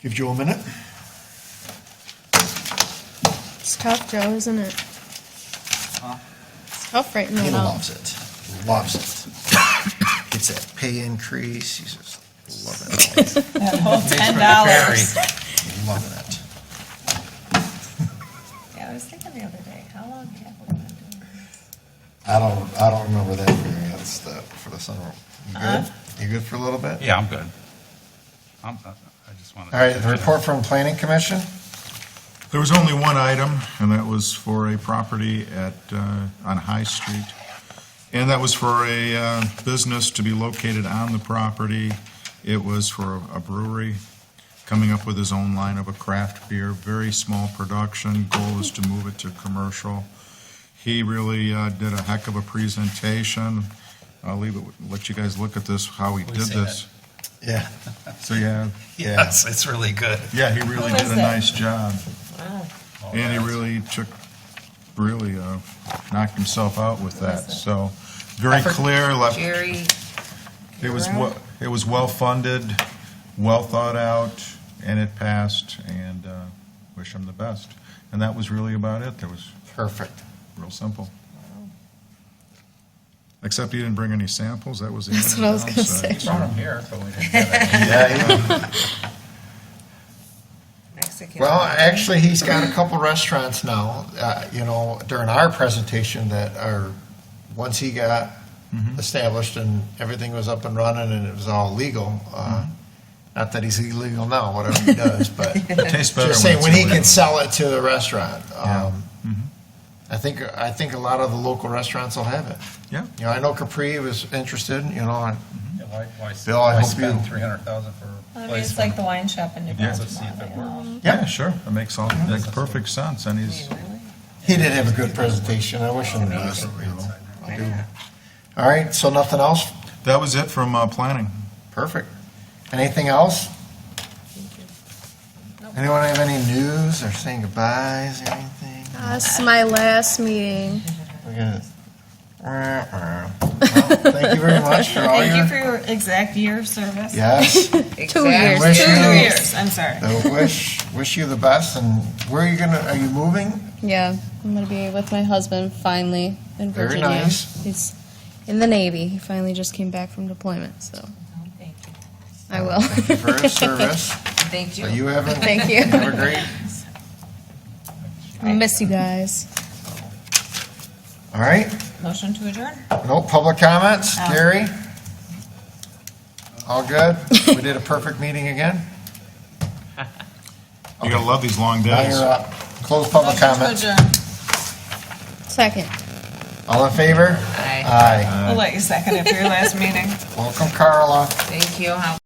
Give Joe a minute. It's tough, Joe, isn't it? It's tough writing He that out. loves it. Loves it. Gets that pay increase. He's just loving it. That whole ten Barry, dollars. Loving it. Yeah, I was thinking the other day, how long have we been doing this? I don't, I don't remember that hearing. That's the, for the sunroom. You good? You good for a little bit? Yeah, I'm good. I'm, I I just want to. All right, the report from Planning Commission? There was only one item, and that was for a property at, uh, on High Street. And that was for a uh, business to be located on the property. It was for a brewery, coming up with his own line of a craft beer, very small production. Goal is to move it to commercial. He really uh, did a heck of a presentation. I'll leave it, let you guys look at this, how he We did see that. this. Yeah. So, yeah, Yes, it's really good. yeah, he really Who did is a it? nice job. Wow. And he really took, really uh, knocked himself out with that, so, very clear, left, Jerry, it was, wel- it was well-funded, well thought out, and it passed, and uh, wish him the best. And that was really about it, that was Perfect. real simple. Except he didn't bring any samples, that was the That's only what I was gonna downside, so- here, but we didn't get it. Mexican. Well, actually, he's got a couple restaurants now, uh, you know, during our presentation that are, once he got Mm-hmm. established and everything was up and running and it was all legal, uh, not that he's illegal now, whatever he does, but Mm-hmm. It Tastes better when just saying, it's when he illegal. can sell it to the restaurant. um, Yeah. Mhm. I think, I think a lot of the local restaurants will have it. Yeah. You know, I know Capri was interested, you know, and Why, why Bill, I why hope spend you- three hundred thousand for I a mean, it's place like the when wine shop in New you Brunswick. get to see if it works? Yeah, sure, that makes all, makes perfect sense, and he's, He did have a good presentation. I wish him the best. you know. I do. All right, so nothing else? that was it from uh, planning. Perfect. Anything else? Anyone have any news or saying goodbyes or anything? That's my last meeting. We got- Well, Thank you very much for all Thank you your, for your exact year of service. yes, Two Exact- Wish years. Two you- years, I'm sorry. so wish, wish you the best, and where are you gonna, are you moving? Yeah, I'm gonna be with my husband finally in Very Virginia. nice. He's in the Navy. He finally just came back from deployment, so Thank you. I will. Thank you for your service, Thank but you haven't, Thank you. have a great, I miss you guys. all right? Motion to adjourn? No public comments? Oh. Gary? All good? We did a perfect meeting again? You're gonna love these long Now days. you're up. Close public Motion to comments. adjourn. Second. All in favor? Aye. Aye. I'll let you second it for your last meeting. Welcome, Carla. Thank you. How